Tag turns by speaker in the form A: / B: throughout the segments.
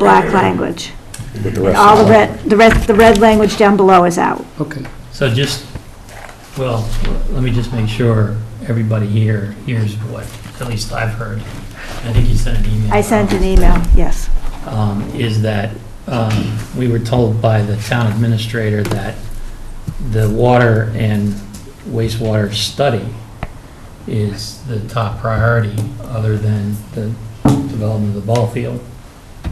A: black language.
B: with the rest
A: All
B: of
A: the red, the
B: the
A: red, the red language down below is out.
C: Okay,
D: So just, well, let me just make sure everybody here hears what, at least I've heard. I think you sent an email.
A: I sent an email, yes.
D: um, Is that um, we were told by the town administrator that the water and wastewater study is the top priority, other than the development of the ball field,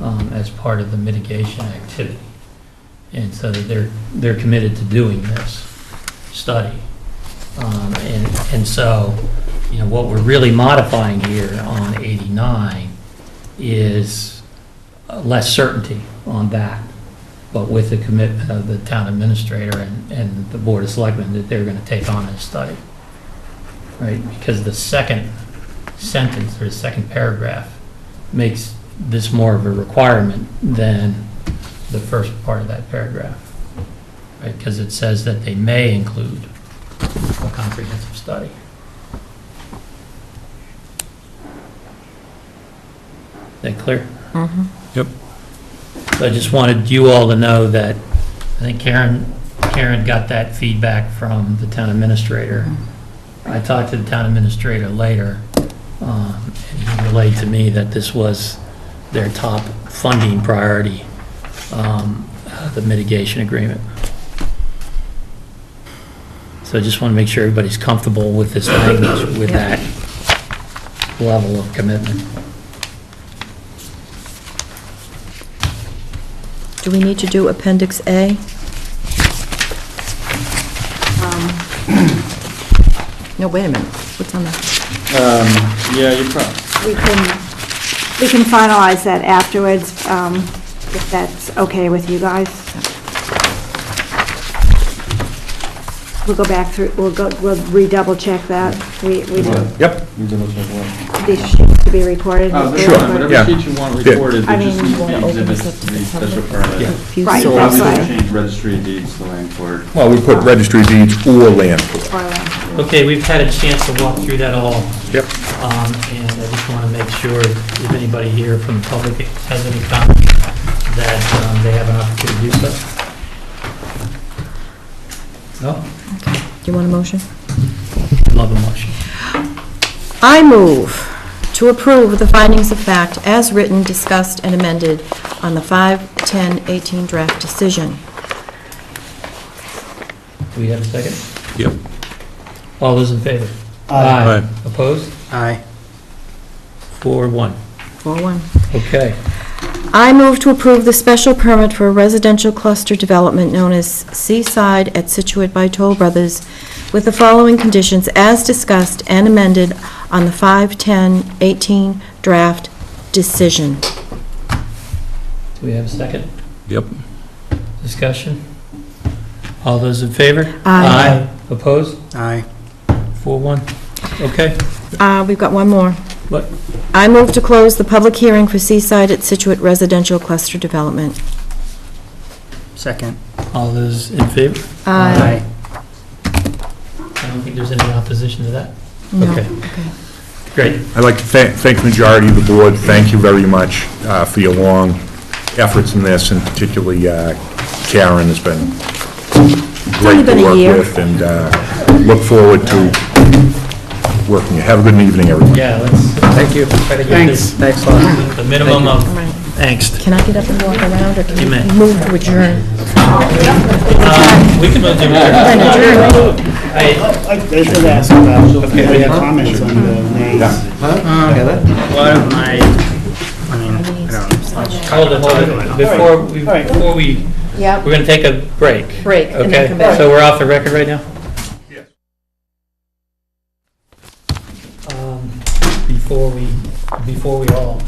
D: um, as part of the mitigation activity. And so that they're, they're committed to doing this study. Um, And, and so, you know, what we're really modifying here on 89 is uh, less certainty on that, but with the commitment of the town administrator and, and the board of selectmen that they're going to take on this study. Right? Because the second sentence or the second paragraph makes this more of a requirement than the first part of that paragraph. Right? Because it says that they may include a comprehensive study. Is that clear? So I just wanted you all to know that, I think Karen, Karen got that feedback from the town administrator. I talked to the town administrator later, um, and he relayed to me that this was their top funding priority, um, uh, the mitigation agreement. So I just want to make sure everybody's comfortable with this language, with that level of commitment.
E: Do we need to do Appendix
F: Um,
E: A?
A: Um,
E: No, wait a minute, what's on that?
F: Yeah, you uh, probably,
A: We can, we can finalize that afterwards, um, if that's okay with you guys. We'll go back through, we'll go, we'll redouble check that. We, we don't,
B: Yep,
F: you can look at one.
A: these sheets to be recorded.
B: yeah.
F: Oh, Whatever sheet you want
B: Yeah.
F: recorded,
A: I
F: there just
A: mean,
F: needs to
E: wanna
F: be
E: open this
F: exhibits
E: up
F: to
E: to
F: the
E: the
F: special
E: public?
F: permit.
A: Right,
E: So-
F: So
A: that's
F: obviously
A: right.
F: change registry of deeds to land court.
B: well, we put registry deeds or land court.
A: Or-
D: Okay, we've had a chance to walk through that all.
B: Yep.
D: Um, And I just want to make sure, if anybody here from the public has any comments, that um, they have an opportunity to do so. No?
E: Do you want a motion?
D: Love a motion.
E: I move to approve the findings of fact as written, discussed, and amended on the 5/10/18 draft decision.
D: Do we have a second?
B: Yep.
D: All those in favor? Aye. Opposed?
C: aye.
D: Four, one.
E: 4-1.
D: Okay.
E: I move to approve the special permit for a residential cluster development known as Seaside at Situate by Toll Brothers with the following conditions as discussed and amended on the 5/10/18 draft decision.
D: Do we have a second?
B: Yep.
D: Discussion? All those in favor?
E: Aye.
D: Opposed?
C: Aye.
D: Four, one. Okay.
E: Uh, We've got one more.
D: What?
E: I move to close the public hearing for Seaside at Situate residential cluster development.
C: Second.
D: All those in favor? I
C: Aye.
D: don't think there's any opposition to that.
E: No.
D: Okay. Great.
B: I'd like to thank, thank the majority of the board, thank you very much uh, for your long efforts in this, and particularly uh, Karen has been
E: only
B: great
E: been a
B: to
E: year.
B: work with, and uh, look forward to working. Have a good evening, everyone.
D: Yeah, let's. Thank you.
C: Thanks, thanks a lot.
D: The minimum of
E: All right.
D: angst.
E: Can I get up and walk around, or can
D: You may.
E: we move to adjourn?
D: Um, We can go
E: Then
D: do
E: adjourn.
D: I
G: I I should ask about, if you have any comments on the names.
C: Well, I, I mean, I don't know.
D: Hold it, hold it. Before we,
G: All right.
D: before we,
E: Yeah.
D: we're going to take a break.
E: Break, and then
D: Okay,
E: come back.
D: so we're off the record right now? Yes. Um, Before we, before we all,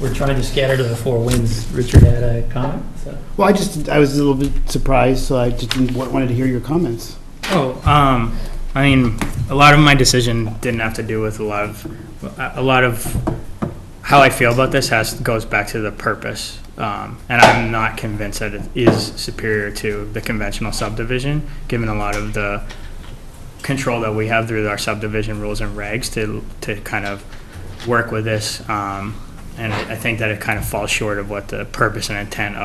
D: we're trying to scatter to the four winds. Richard had a comment, so.
G: Well, I just, I was a little bit surprised, so I just didn't- wa- wanted to hear your comments.
C: Oh, um, I mean, a lot of my decision didn't have to do with a lot of, a a lot of how I feel about this has, goes back to the purpose. Um, and I'm not convinced that it is superior to the conventional subdivision, given a lot of the control that we have through our subdivision rules and regs to, to kind of work with this. Um, And I I think that it kind of falls short of what the purpose and intent of.